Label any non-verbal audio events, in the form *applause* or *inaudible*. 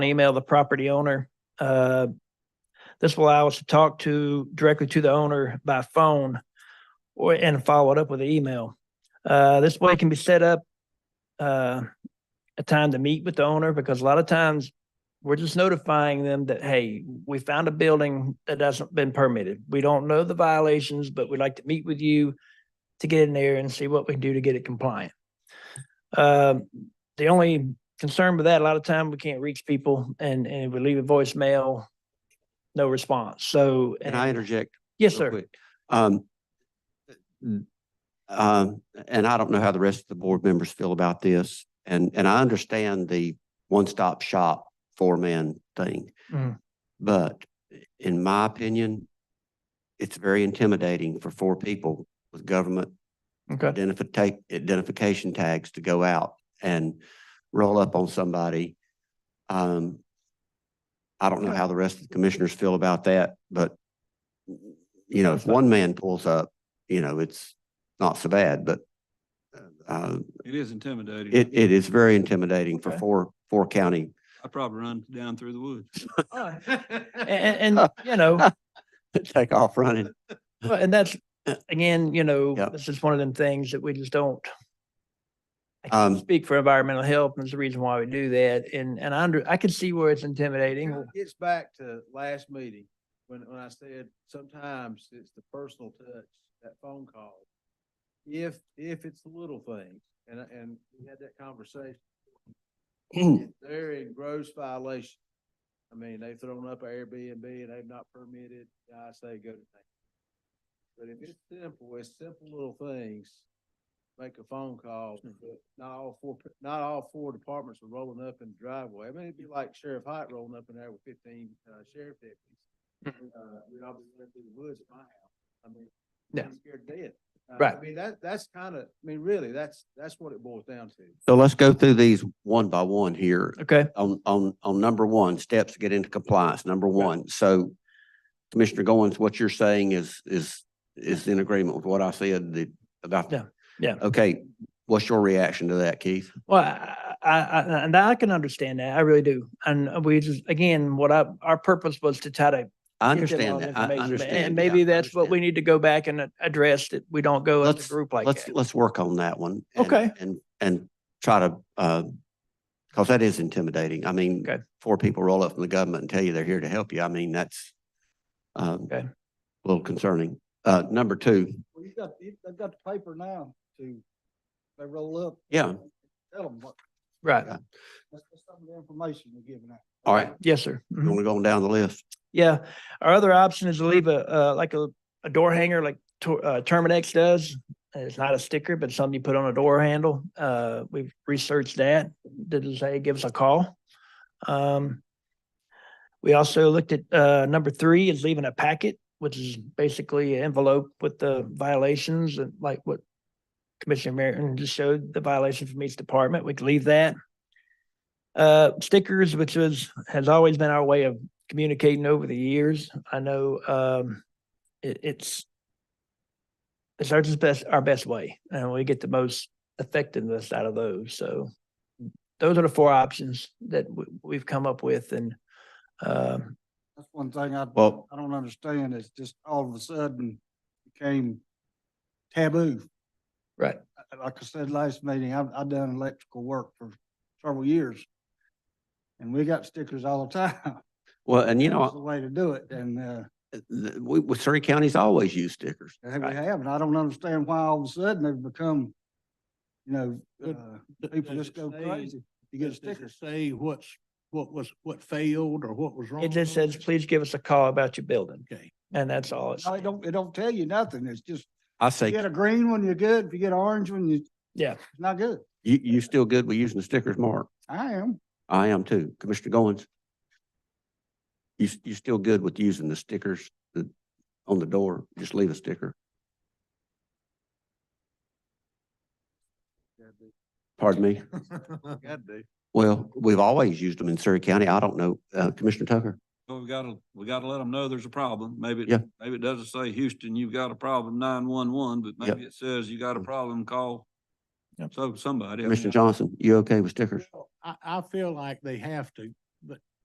email the property owner. Uh, This will allow us to talk to, directly to the owner by phone or, and follow it up with an email. Uh, This way can be set up uh, a time to meet with the owner because a lot of times we're just notifying them that, hey, we found a building that hasn't been permitted. We don't know the violations, but we'd like to meet with you to get in there and see what we can do to get it compliant. Um, The only concerned with that. A lot of time we can't reach people and, and if we leave a voicemail, no response. So. Can I interject? Yes, real sir. quick? Um, n- um, and I don't know how the rest of the board members feel about this, and, and I understand the one-stop shop four-man thing. Mhm. But in my opinion, it's very intimidating for four people with government Okay. identify, identification tags to go out and roll up on somebody. Um, I don't know how the rest of the commissioners feel about that, but you know, if one man pulls up, you know, it's not so bad, but uh, It is intimidating. it, it is very intimidating for Okay. four, four county. I probably run down through the woods. Alright. And, and, you *laughs* know, *laughs* Take off running. well, and that's, again, you know, Uh, Yeah. this is one of them things that we just don't. I Um, can't speak for environmental health and it's the reason why we do that. And, and I under, I can see where it's intimidating. It's back to last meeting, when, when I said sometimes it's the personal touch, that phone call. If, if it's the little things, and, I- and we had that conversation, if they're in gross violation. I mean, they've thrown up Airbnb and they've not permitted, I say go to them. But if it's simple, it's simple little things, make a phone call, Hmm. but not all four, pe- not all four departments are rolling up in the driveway. I mean, it'd be like Sheriff Height rolling up in there with fifteen, uh, sheriff Hmm. deputies. Uh, we'd all be running through the woods at my house. I mean, Yeah. I'm scared to death. Uh, Right. I mean, that, that's kind of, I mean, really, that's, that's what it boils down to. So let's go through these one by one here. Okay. on, on, on number one, steps to get into compliance, number one. So Commissioner Goins, what you're saying is, is, is in agreement with what I said the- about. Yeah, yeah. Okay, what's your reaction to that, Keith? Well, I, I, I- and I can understand that. I really do. And we just, again, what I, our purpose was to try to I give them all understand the that. I information, but- understand. And yeah, maybe I that's what we understand. need to go back and a- address that we don't go as Let's- a group like Let's, that. let's work on that one. and- Okay. And, and try to, uh, because that is intimidating. I mean, Okay. four people roll up from the government and tell you they're here to help you. I mean, that's um, Okay. a little concerning. Uh, number two, Well, you got, you- they've got the paper now to, they roll up. Yeah. Tell them what, Right. that's that's some of the information you're giving out. all right, Yes, sir. Mhm. you want to go on down the list? Yeah. Our other option is to leave a, uh, like a, a door hanger like Tor- uh, Terminex does. And It's not a sticker, but something you put on a door handle. Uh, we've researched that. Did it say give us a call? Um, we also looked at, uh, number three is leaving a packet, which is basically an envelope with the violations and like what Commissioner Merritt just showed, the violation from each department. We could leave that. Uh, stickers, which is, has always been our way of communicating over the years. I know um it it's it's our just best our best way and we get the most effectiveness out of those. So those are the four options that we we've come up with and um That's one thing I, Well- I don't understand is just all of a sudden became taboo. right. Uh, Like I said last meeting, I've, I've done electrical work for several years. And we got stickers all the time. Well, and you That was The know, way to do it and, uh, th- we, we- Surrey County's always used stickers. they- we Right. have, and I don't understand why all of a sudden they've become, you know, Good. uh, Th- people does just it go say- crazy. You does- get does it stickers. Say what's, what was, what failed or what was wrong? It just with says, please give us a call about your building. Okay. And that's all it's No, it don't, it don't tell you nothing. It's just, I if you say, get a green one, you're good. If you get an orange one, you. Yeah. It's not good. you, you still good with using the stickers, Mark? I am. I am too. Commissioner Goins? You, s- you still good with using the stickers that, on the door? Just leave a sticker? Pardon me? God, dude. Well, we've always used them in Surrey County. I don't know. Uh, Commissioner Tucker? But we gotta, we gotta let them know there's a problem. Maybe, it- Yeah. maybe it doesn't say Houston, you've got a problem, nine one one, but Yeah. Mm. maybe it says you got a problem, call. Yep. So somebody. I mean, Commissioner Johnson, you okay with stickers? I, I feel like they have to